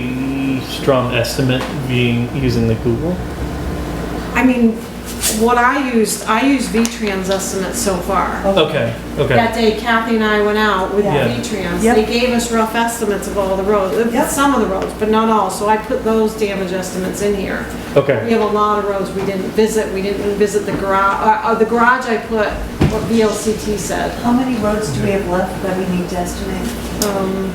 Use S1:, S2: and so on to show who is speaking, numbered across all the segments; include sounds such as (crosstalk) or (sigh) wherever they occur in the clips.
S1: pretty strong estimate being using the Google.
S2: I mean, what I used, I used V-Trans estimates so far.
S1: Okay, okay.
S2: That day Kathy and I went out with
S1: Yeah.
S2: V-Trans.
S3: Yep.
S2: They gave us rough estimates of all the roads, uh,
S3: Yep.
S2: some of the roads, but not all. So I put those damage estimates in here. We
S1: Okay,
S2: have a lot of roads we didn't visit. We didn't visit the garage, uh, the garage I put what VLCT said.
S3: How many roads do we have left that we need to estimate?
S2: Um,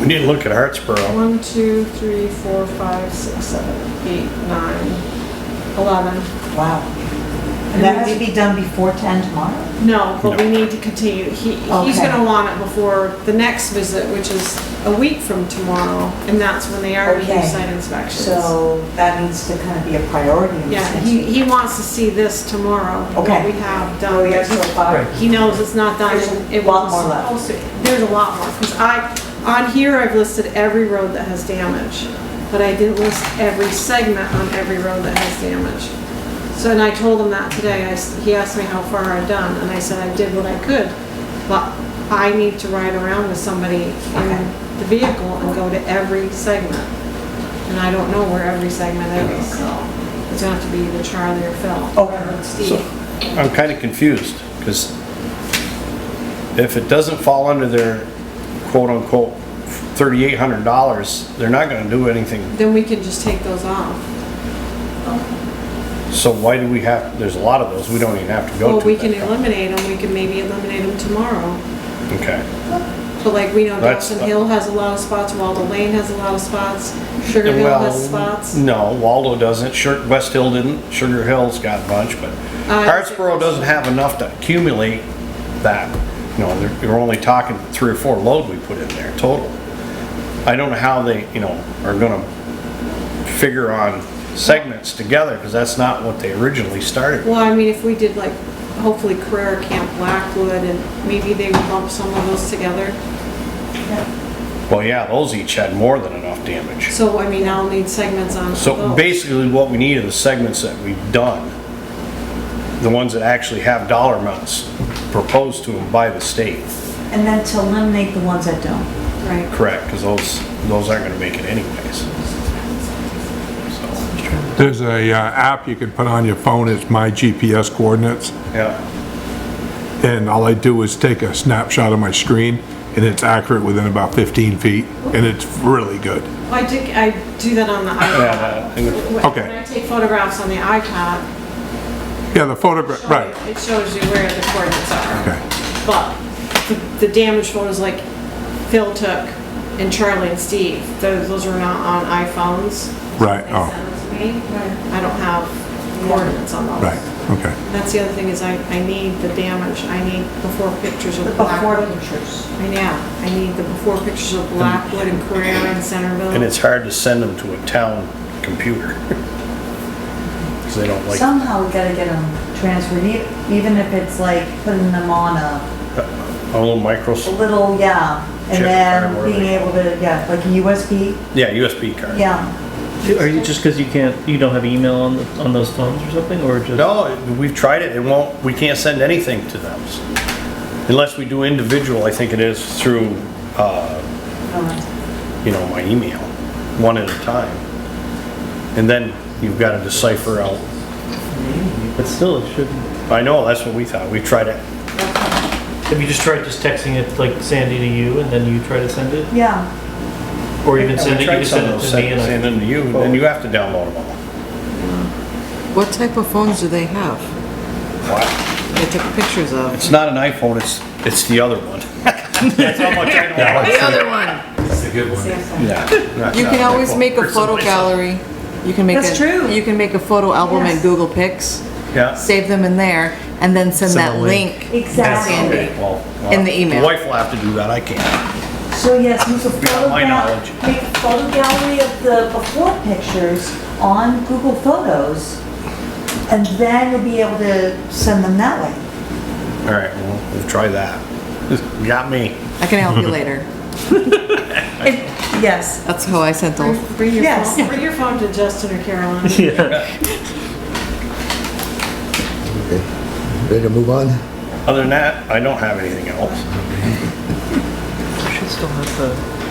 S4: We need to look at Hartsboro.
S2: One, two, three, four, five, six, seven, eight, nine, eleven.
S3: Wow. And that has to be done before 10 tomorrow?
S2: No, but we need to continue. He, he's
S3: Okay.
S2: gonna want it before the next visit, which is a week from tomorrow, and that's when they already do
S3: Okay.
S2: site inspections.
S3: So that needs to kind of be a priority. in
S2: Yeah,
S3: this
S2: he,
S3: next-
S2: he wants to see this tomorrow, what
S3: Okay.
S2: we have
S3: Oh,
S2: done.
S3: we have so far.
S1: Right.
S2: He knows it's not done.
S3: There's a
S2: and it
S3: lot
S2: was
S3: more left.
S2: supposed to- There's a lot more, because I, on here, I've listed every road that has damage, but I didn't list every segment on every road that has damage. So, and I told him that today, I, s- he asked me how far I'd done, and I said I did what I could, but I need to ride around with somebody
S3: Okay.
S2: in the vehicle and go to every segment. And I don't know where every segment is, so it's gonna have to be either Charlie or Phil.
S3: Okay.
S2: or
S4: So
S2: Steve.
S4: I'm kind of confused because if it doesn't fall under their quote unquote thirty-eight hundred dollars, they're not gonna do anything.
S2: Then we can just take those off.
S4: So why do we have, there's a lot of those, we don't even have to go to.
S2: Well, we can
S4: that.
S2: eliminate them, we can maybe eliminate them tomorrow.
S4: Okay.
S2: But like, we know
S4: That's-
S2: Dawson Hill has a lot of spots, Waldo Lane has a lot of spots, Sugar Hill
S4: Well,
S2: has spots.
S4: No, Waldo doesn't, Sugar, West Hill didn't, Sugar Hill's got a bunch, but
S2: Uh,
S4: Hartsboro doesn't have enough to accumulate that. You know, they're, you're only talking three or four load we put in there total. I don't know how they, you know, are gonna figure on segments together, because that's not what they originally started.
S2: Well, I mean, if we did like, hopefully Carrera Camp, Blackwood, and maybe they would lump some of those together.
S4: Well, yeah, those each had more than enough damage.
S2: So, I mean, I'll need segments on
S4: So
S2: those.
S4: basically, what we need are the segments that we've done. The ones that actually have dollar amounts proposed to them by the state.
S3: And then to eliminate the ones that don't.
S2: Right.
S4: Correct, because those, those aren't gonna make it anyways. So,
S5: There's a uh, app you can put on your phone, it's My GPS Coordinates,
S4: yeah,
S5: and all I do is take a snapshot of my screen, and it's accurate within about 15 feet, and it's really good.
S2: Well, I do, I do that on the
S4: yeah,
S2: iPad.
S4: that-
S2: When-
S5: Okay.
S2: When I take photographs on the iPad,
S5: Yeah, the photograph, right,
S2: it shows you where the coordinates are.
S5: okay,
S2: But the- the damage photos like Phil took and Charlie and Steve, those, those are not on iPhones.
S5: right,
S2: They sent
S5: oh,
S2: them to me. I don't have coordinates on those.
S5: right, okay.
S2: That's the other thing is I, I need the damage. I need before pictures of
S3: Before
S2: Blackwood.
S3: pictures.
S2: I know. I need the before pictures of Blackwood and Carrera and Centerville.
S4: and it's hard to send them to a town computer. (laughs) Because they don't like,
S3: Somehow we gotta get them transferred, e- even if it's like putting them on a
S4: a little micros,
S3: little, yeah,
S4: Chip,
S3: and
S4: or
S3: then
S4: whatever.
S3: being able to, yeah, like a USB,
S4: yeah, USB card.
S3: yeah.
S1: Are you, just because you can't, you don't have email on, the- on those phones or something, or just?
S4: No, we've tried it, it won't, we can't send anything to them. Unless we do individual, I think it is through, uh, you know, my email, one at a time. And then you've gotta decipher out,
S1: But still, it shouldn't.
S4: I know, that's what we thought, we tried it,
S1: Have you just tried just texting it, like Sandy to you, and then you try to send it?
S3: Yeah,
S1: Or even
S4: Yeah,
S1: send it,
S4: we
S1: you
S4: tried
S1: can
S4: some
S1: send
S4: of
S1: it
S4: those,
S1: to me
S4: send
S1: and I.
S4: send them to you, and then you have to download them all.
S6: What type of phones do they have? They took pictures of.
S4: It's not an iPhone, it's, it's the other one. (laughs) That's how much I know.
S6: The other one.
S3: Samsung.
S4: Yeah.
S6: You can always make a photo gallery. You can make a.
S3: That's true.
S6: You can make a photo album in
S3: Yes.
S6: Google Pics,
S4: Yeah.
S6: save them in there, and then send
S1: Send
S6: that
S1: a link.
S6: link.
S3: Exactly.
S4: Okay, well, well,
S6: In the email.
S4: my Wife will have to do that, I can't.
S3: So yes, use a photo
S4: my
S3: gal,
S4: knowledge.
S3: make a photo gallery of the before pictures on Google Photos, and then you'll be able to send them that way.
S4: All right, well, we'll try that. Got me.
S6: I can help you later.
S3: Yes.
S6: That's how I sent those.
S2: Bring- Bring your
S3: Yes.
S2: phone, bring your phone to Justin or Caroline.
S1: Yeah.
S7: Okay, ready to move on?
S4: Other than that, I don't have anything else.
S1: Should still have the